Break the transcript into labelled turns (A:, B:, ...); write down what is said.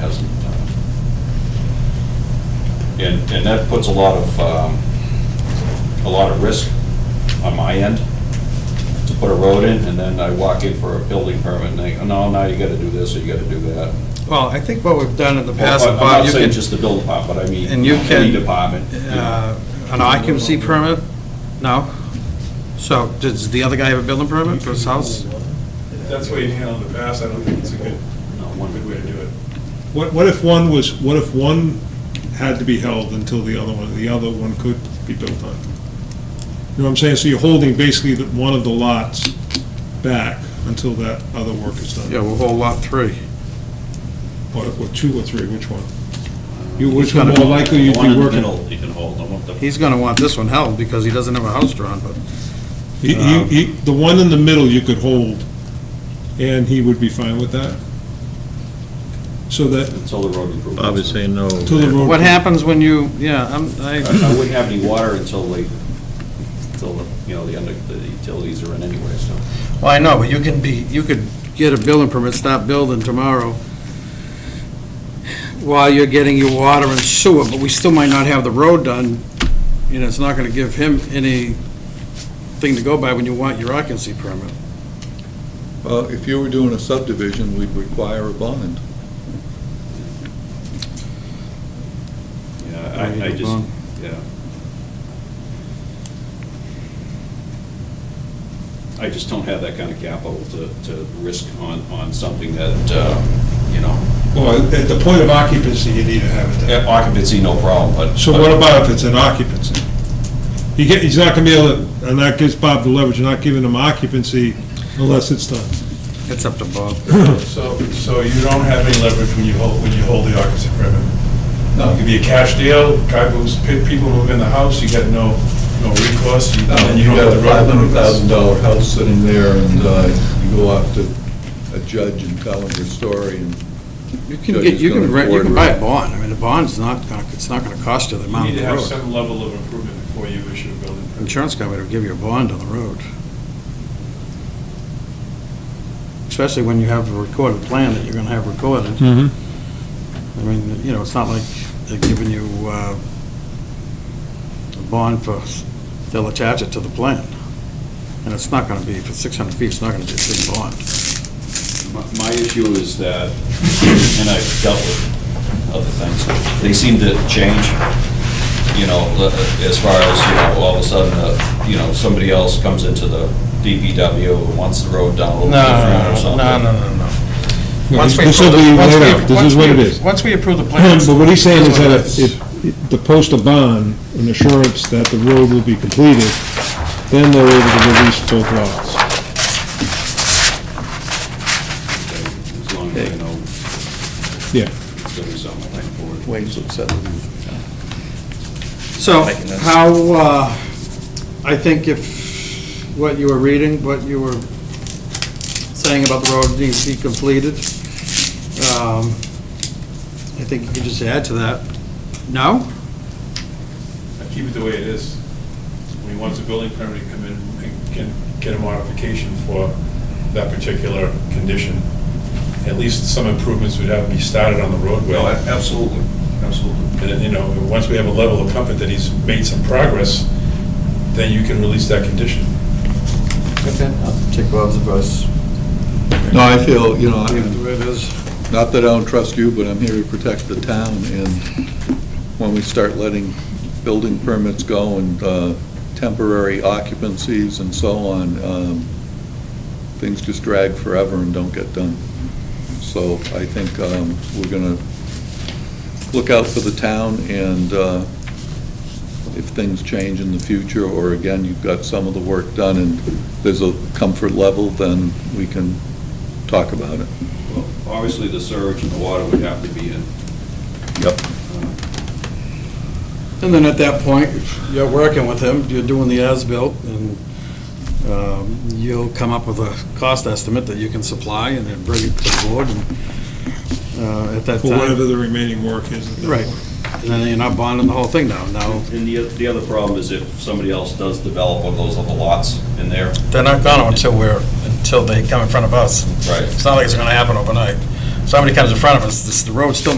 A: uh, And, and that puts a lot of, um, a lot of risk on my end to put a road in, and then I walk in for a building permit, and they, go, no, now you gotta do this, or you gotta do that.
B: Well, I think what we've done in the past,
A: Well, I'm
B: Bob,
A: not
B: you
A: saying
B: can,
A: just the building part, but I mean,
B: And you
A: any
B: can,
A: department. you know.
B: uh, an occupancy permit? No? So, does the other guy have a building permit for his house?
C: That's the way you handle it in the past, I don't think it's a good, one good way to do it.
D: What, what if one was, what if one had to be held until the other one, the other one could be built on? You know what I'm saying? So you're holding basically the- one of the lots back until that other work is done.
B: Yeah, we'll hold lot three.
D: Or, or two or three, which one? You, which
B: He's
D: one
B: gotta
D: more likely you'd
A: The one
D: be
A: in the
D: working?
A: middle, you can hold, I want the-
B: He's gonna want this one held because he doesn't have a house drawn, but
D: He- he- he- The one in the middle you could hold, and he would be fine with that? So that,
A: until the road improvements.
E: Bob is saying no.
D: till the road.
B: what happens when you, yeah, I'm,
A: I I
B: I,
A: wouldn't have any water until they, until, the you know, the under, the utilities are in anyway, so.
B: well, I know, but you can be, you could get a building permit, stop building tomorrow while you're getting your water and sewer, but we still might not have the road done, you know, it's not gonna give him any thing to go by when you want your occupancy permit.
E: Well, if you were doing a subdivision, we'd require a bond.
A: Yeah,
B: Or you
A: I, I
B: go
A: just,
B: bond.
A: yeah. I just don't have that kind of capital to, to risk on, on something that, uh, you know,
D: Well, at the point of occupancy, you need to have it done.
A: occupancy, no problem, but.
D: So what about if it's an occupancy? He get, he's not gonna be able to, and that gives Bob the leverage, you're not giving him occupancy unless it's done.
B: It's up to Bob.
C: So, so you don't have any leverage when you hold, when you hold the occupancy permit? No. It could be a cash deal, guy moves, pe- people move in the house, you got no, no recourse, and then you don't have
E: got
C: the
E: a
C: road.
E: five hundred thousand dollar house sitting there, and uh, you go off to a judge and tell him your story, and
B: You can
E: Judge
B: get,
E: is
B: you can,
E: gonna
B: rent- you can
E: afford
B: buy
E: it.
B: a bond, I mean, a bond's not, gonna it's not gonna cost you the
C: You
B: amount
C: need
B: of
C: to
B: the
C: have
B: road.
C: some level of improvement before you issue a building permit.
B: Insurance company will give you a bond on the road. Especially when you have a recorded plan that you're gonna have recorded.
D: Mm-hmm.
B: I mean, you know, it's not like they're giving you, uh, a bond for, they'll attach it to the plan. And it's not gonna be, if it's six hundred feet, it's not gonna be a big bond.
A: My my issue is that, and I've dealt with other things, they seem to change, you know, uh, as far as, you know, all of a sudden, uh, you know, somebody else comes into the DPW and wants the road down a little different or something.
B: no, no. Once we
D: This will
B: approve the-
D: be
B: once
D: laid
B: we-
D: out, this
B: once
D: is what
B: we-
D: it is.
B: Once we approve the plan.
D: But what he's saying is that
B: it's-
D: if, if the post a bond, an assurance that the road will be completed, then they're able to release both lots.
A: As long as I know
D: Yeah.
A: it's gonna be something I can afford.
F: Waves would settle in.
B: So,
F: Making this.
B: how, uh, I think if what you were reading, what you were saying about the road needs to be completed, um, I think you could just add to that. No?
C: Keep it the way it is. When he wants a building permit, he come in and can get a modification for that particular condition. At least some improvements would have to be started on the roadway.
A: Well, a- Oh, absolutely, absolutely.
C: And, then, you know, once we have a level of comfort that he's made some progress, then you can release that condition.
B: Okay. Take Bob's advice.
E: No, I feel, you know,
B: Leave it
E: I-
B: the way it is.
E: not that I don't trust you, but I'm here to protect the town, and when we start letting building permits go and uh, temporary occupancies and so on, um, things just drag forever and don't get done. So I think um, we're going to look out for the town, and uh, if things change in the future, or again, you've got some of the work done and there's a comfort level, then we can talk about it.
A: Well, Obviously, the surge and the water would have to be in.
E: Yep.
B: And then at that point, you're working with him, you're doing the as-built, and um, you'll come up with a cost estimate that you can supply, and then bring it to the board, and uh, at that
D: For
B: time,
D: whatever the remaining work is. at that
B: Right.
D: point.
B: and then you're not bonding the whole thing down, now.
A: And the, the other problem is if somebody else does develop one of those other lots in there,
B: They're not gonna until we're, until they come in front of us.
A: Right.
B: It's not like it's gonna happen overnight. Somebody comes in front of us, this- the road's still